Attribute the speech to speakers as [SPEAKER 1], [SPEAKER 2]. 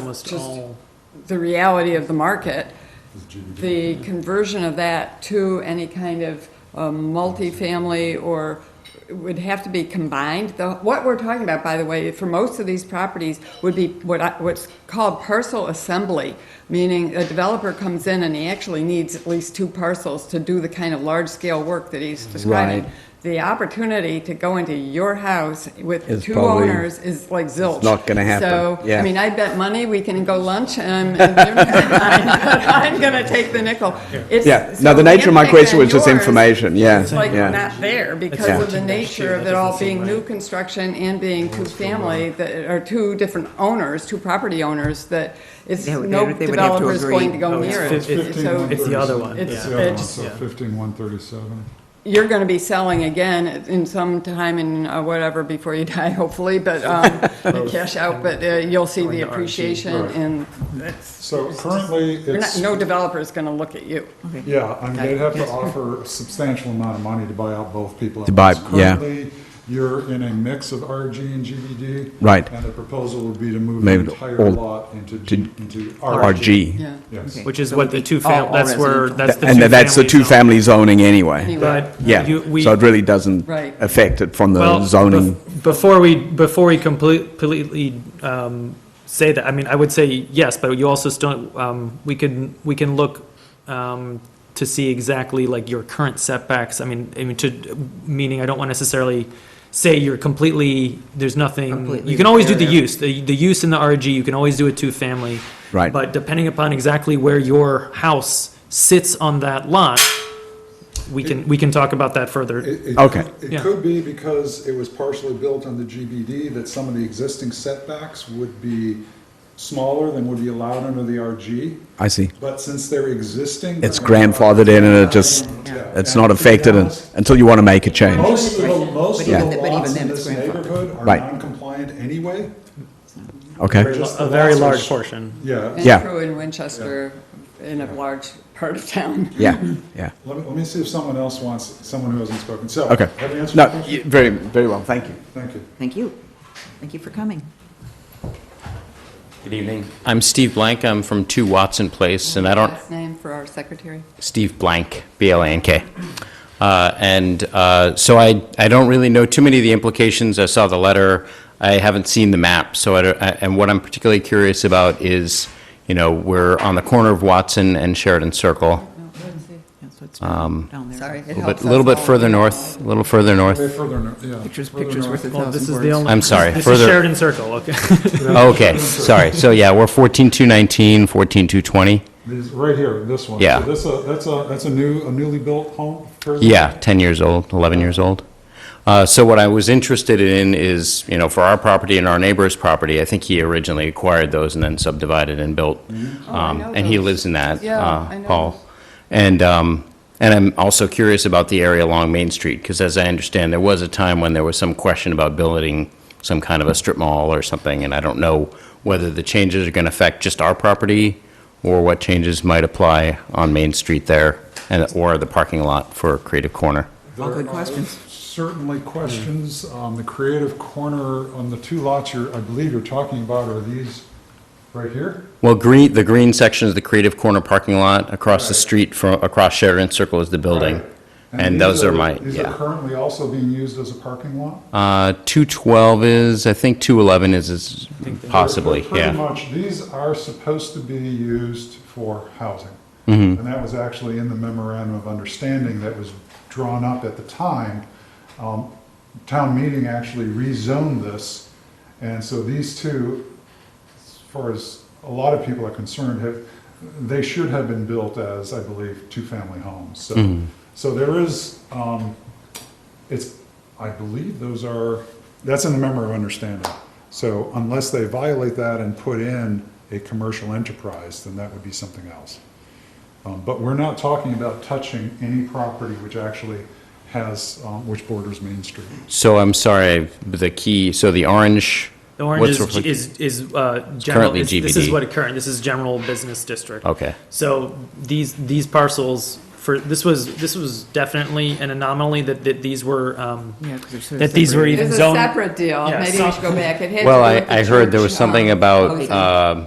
[SPEAKER 1] almost
[SPEAKER 2] just-
[SPEAKER 1] all,
[SPEAKER 2] the reality of the market,
[SPEAKER 3] GDP.
[SPEAKER 2] the conversion of that to any kind of um, multifamily or it would have to be combined. The, what we're talking about, by the way, for most of these properties would be what I, what's called parcel assembly, meaning a developer comes in and he actually needs at least two parcels to do the kind of large scale work that he's describing.
[SPEAKER 4] Right.
[SPEAKER 2] The opportunity to go into your house with
[SPEAKER 4] Is
[SPEAKER 2] two
[SPEAKER 4] probably-
[SPEAKER 2] owners is like zilch.
[SPEAKER 4] not gonna happen.
[SPEAKER 2] So, I
[SPEAKER 4] Yeah.
[SPEAKER 2] mean, I bet money we can go lunch and, and you're not mine, but I'm going to take the nickel. It's-
[SPEAKER 4] Yeah.
[SPEAKER 2] so
[SPEAKER 4] No, the nature of my
[SPEAKER 2] impact
[SPEAKER 4] question
[SPEAKER 2] on
[SPEAKER 4] was just
[SPEAKER 2] yours
[SPEAKER 4] information. Yeah.
[SPEAKER 2] is like
[SPEAKER 4] yeah.
[SPEAKER 2] not there
[SPEAKER 1] Yeah.
[SPEAKER 2] because of the nature of it all being new construction and being two family, that are two different owners, two property owners, that it's,
[SPEAKER 5] They would-
[SPEAKER 2] no
[SPEAKER 5] they would have to
[SPEAKER 2] developer's
[SPEAKER 5] agree.
[SPEAKER 2] going to go
[SPEAKER 1] Oh,
[SPEAKER 2] near
[SPEAKER 1] it's
[SPEAKER 2] it.
[SPEAKER 1] fif-
[SPEAKER 2] It's- So
[SPEAKER 1] it's the other one,
[SPEAKER 2] It's,
[SPEAKER 1] yeah.
[SPEAKER 3] Yeah,
[SPEAKER 2] it's,
[SPEAKER 3] so
[SPEAKER 1] yeah.
[SPEAKER 3] fifteen one thirty-seven.
[SPEAKER 2] you're going to be selling again in some time in uh, whatever before you die, hopefully, but um, cash out. But uh, you'll see
[SPEAKER 1] Going
[SPEAKER 2] the
[SPEAKER 1] to RG.
[SPEAKER 2] appreciation,
[SPEAKER 3] Right.
[SPEAKER 2] and
[SPEAKER 3] So currently,
[SPEAKER 2] you're not,
[SPEAKER 3] it's,
[SPEAKER 2] no developer's going to look at you.
[SPEAKER 3] yeah, I mean, they'd have to offer a substantial amount of money to buy out both people.
[SPEAKER 4] To buy- yeah.
[SPEAKER 3] Currently, you're in a mix of RG and GDD.
[SPEAKER 4] Right.
[SPEAKER 3] And the proposal would be to move the
[SPEAKER 4] Maybe the
[SPEAKER 3] entire
[SPEAKER 4] old-
[SPEAKER 3] lot into, G- into RG.
[SPEAKER 4] RG.
[SPEAKER 2] Yeah.
[SPEAKER 3] Yes.
[SPEAKER 1] which is what the two
[SPEAKER 5] all-
[SPEAKER 1] fam,
[SPEAKER 5] all
[SPEAKER 1] that's where,
[SPEAKER 5] residential.
[SPEAKER 1] that's the
[SPEAKER 4] And
[SPEAKER 1] two
[SPEAKER 4] that's the
[SPEAKER 1] family
[SPEAKER 4] two
[SPEAKER 1] zone.
[SPEAKER 4] family zoning anyway.
[SPEAKER 2] Anyway.
[SPEAKER 1] But
[SPEAKER 4] Yeah.
[SPEAKER 1] you- we-
[SPEAKER 4] So it really doesn't
[SPEAKER 2] Right.
[SPEAKER 4] affect it from
[SPEAKER 1] Well,
[SPEAKER 4] the zoning.
[SPEAKER 1] bef- Before we, before we complete- completely um, say that, I mean, I would say yes, but you also still, um, we can, we can look um, to see exactly like your current setbacks. I mean, I mean, to, meaning I don't want necessarily say you're completely, there's nothing,
[SPEAKER 5] Completely
[SPEAKER 1] you can always do the
[SPEAKER 5] impaired.
[SPEAKER 1] use, the, the use in the RG, you can always do a two-family.
[SPEAKER 4] Right.
[SPEAKER 1] But depending upon exactly where your house sits on that lot, we can, we can talk about that further.
[SPEAKER 3] It- it
[SPEAKER 4] Okay.
[SPEAKER 3] could-
[SPEAKER 1] Yeah.
[SPEAKER 3] It could be because it was partially built on the GBD, that some of the existing setbacks would be smaller than would be allowed under the RG,
[SPEAKER 4] I see.
[SPEAKER 3] but since they're existing.
[SPEAKER 4] It's grandfathered in and it just,
[SPEAKER 3] Yeah.
[SPEAKER 4] it's
[SPEAKER 3] And
[SPEAKER 4] not
[SPEAKER 3] to be
[SPEAKER 4] affected un-
[SPEAKER 3] honest,
[SPEAKER 4] until you want to make a change.
[SPEAKER 3] Most of the, most of
[SPEAKER 5] Yeah.
[SPEAKER 3] the
[SPEAKER 5] But even
[SPEAKER 3] lots in
[SPEAKER 5] then, it's
[SPEAKER 3] this
[SPEAKER 5] grandfathered.
[SPEAKER 3] neighborhood are
[SPEAKER 4] Right.
[SPEAKER 3] non-compliant anyway.
[SPEAKER 4] Okay.
[SPEAKER 3] Just the
[SPEAKER 1] A very
[SPEAKER 3] lots are
[SPEAKER 1] large
[SPEAKER 3] sh-
[SPEAKER 1] portion.
[SPEAKER 3] Yeah,
[SPEAKER 2] And
[SPEAKER 4] Yeah.
[SPEAKER 2] true in Winchester, in a large part of town.
[SPEAKER 4] Yeah. Yeah.
[SPEAKER 3] let me, let me see if someone else wants, someone who hasn't spoken, so.
[SPEAKER 4] Okay.
[SPEAKER 3] Have you answered
[SPEAKER 4] No,
[SPEAKER 3] your question?
[SPEAKER 4] y- very, very well. Thank you.
[SPEAKER 3] Thank you.
[SPEAKER 5] Thank you. Thank you for coming.
[SPEAKER 6] Good evening. I'm Steve Blank. I'm from 2 Watson Place, and I don't,
[SPEAKER 2] Last name for our secretary.
[SPEAKER 6] Steve Blank, B-L-A-N-K. Uh, And uh, so I, I don't really know too many of the implications. I saw the letter. I haven't seen the map, so I, don't- I- and what I'm particularly curious about is, you know, we're on the corner of Watson and Sheridan Circle,
[SPEAKER 5] That's what's down there.
[SPEAKER 2] Sorry.
[SPEAKER 6] a little bit- little bit further north, a little further
[SPEAKER 3] Way
[SPEAKER 6] north.
[SPEAKER 3] further, nor- yeah.
[SPEAKER 5] Pictures,
[SPEAKER 3] further
[SPEAKER 5] pictures
[SPEAKER 3] north.
[SPEAKER 5] worth a
[SPEAKER 1] Well, this
[SPEAKER 5] thousand
[SPEAKER 1] is the
[SPEAKER 5] words.
[SPEAKER 1] only.
[SPEAKER 6] I'm sorry,
[SPEAKER 1] This is
[SPEAKER 6] further-
[SPEAKER 1] Sheridan Circle, okay.
[SPEAKER 6] Oh, Okay, sorry. So yeah, we're 14219, 14220.
[SPEAKER 3] These, right here, this one.
[SPEAKER 6] Yeah.
[SPEAKER 3] So this, uh, that's a, that's a new, a newly built home? fairly?
[SPEAKER 6] Yeah, 10 years old, 11 years old. Uh, So what I was interested in is, you know, for our property and our neighbor's property, I think he originally acquired those and then subdivided and built.
[SPEAKER 2] Oh, I
[SPEAKER 6] Um,
[SPEAKER 2] know
[SPEAKER 6] And he
[SPEAKER 2] those.
[SPEAKER 6] lives in that,
[SPEAKER 2] Yeah,
[SPEAKER 6] uh,
[SPEAKER 2] I know
[SPEAKER 6] Paul.
[SPEAKER 2] those.
[SPEAKER 6] And, um, and I'm also curious about the area along Main Street, because as I understand, there was a time when there was some question about building some kind of a strip mall or something, and I don't know whether the changes are going to affect just our property or what changes might apply on Main Street there and, or the parking lot for Creative Corner.
[SPEAKER 3] There
[SPEAKER 5] All good
[SPEAKER 3] are
[SPEAKER 5] questions.
[SPEAKER 3] Certainly questions. Um, the creative corner on the two lots you're, I believe you're talking about are these right here?
[SPEAKER 6] Well, green, the green section is the Creative Corner parking lot. Across the
[SPEAKER 3] Right.
[SPEAKER 6] street from, across Sheridan Circle is the building.
[SPEAKER 3] Right.
[SPEAKER 6] And
[SPEAKER 3] these
[SPEAKER 6] those are my,
[SPEAKER 3] These are
[SPEAKER 6] yeah.
[SPEAKER 3] currently also being used as a parking lot?
[SPEAKER 6] Uh, 212 is, I think 211 is- is possibly,
[SPEAKER 3] They're Pretty
[SPEAKER 6] yeah.
[SPEAKER 3] much, these are supposed to be used for housing.
[SPEAKER 6] Mm-hmm.
[SPEAKER 3] And that was actually in the memorandum of understanding that was drawn up at the time. Um, Town meeting actually rezoned this, and so these two, as far as a lot of people are concerned, have, they should have been built as, I believe, two-family homes.
[SPEAKER 6] Mm-hmm.
[SPEAKER 3] So, so there is, um, it's, I believe those are, that's in the member of understanding. So unless they violate that and put in a commercial enterprise, then that would be something else. Um, But we're not talking about touching any property which actually has, um, which borders Main Street.
[SPEAKER 6] So I'm sorry, the key, so the orange.
[SPEAKER 1] The orange
[SPEAKER 6] what's
[SPEAKER 1] is,
[SPEAKER 6] reflect-
[SPEAKER 1] is, is, uh, general,
[SPEAKER 6] currently
[SPEAKER 1] this this is
[SPEAKER 6] GBD.
[SPEAKER 1] what it current, this is general business district.
[SPEAKER 6] Okay.
[SPEAKER 1] So these, these parcels for, this was, this was definitely an anomaly that, that these were, um,
[SPEAKER 5] Yeah, 'cause they're sort of
[SPEAKER 1] that these were
[SPEAKER 5] separated.
[SPEAKER 1] even
[SPEAKER 2] It's a
[SPEAKER 1] zoned.
[SPEAKER 2] separate deal.
[SPEAKER 1] Yeah,
[SPEAKER 2] Maybe we
[SPEAKER 1] some-
[SPEAKER 2] should go back. It had to
[SPEAKER 6] Well,
[SPEAKER 2] do
[SPEAKER 6] I,
[SPEAKER 2] with the
[SPEAKER 6] I heard there was
[SPEAKER 2] church,
[SPEAKER 6] something
[SPEAKER 2] um,
[SPEAKER 6] about,
[SPEAKER 2] housing.
[SPEAKER 6] um,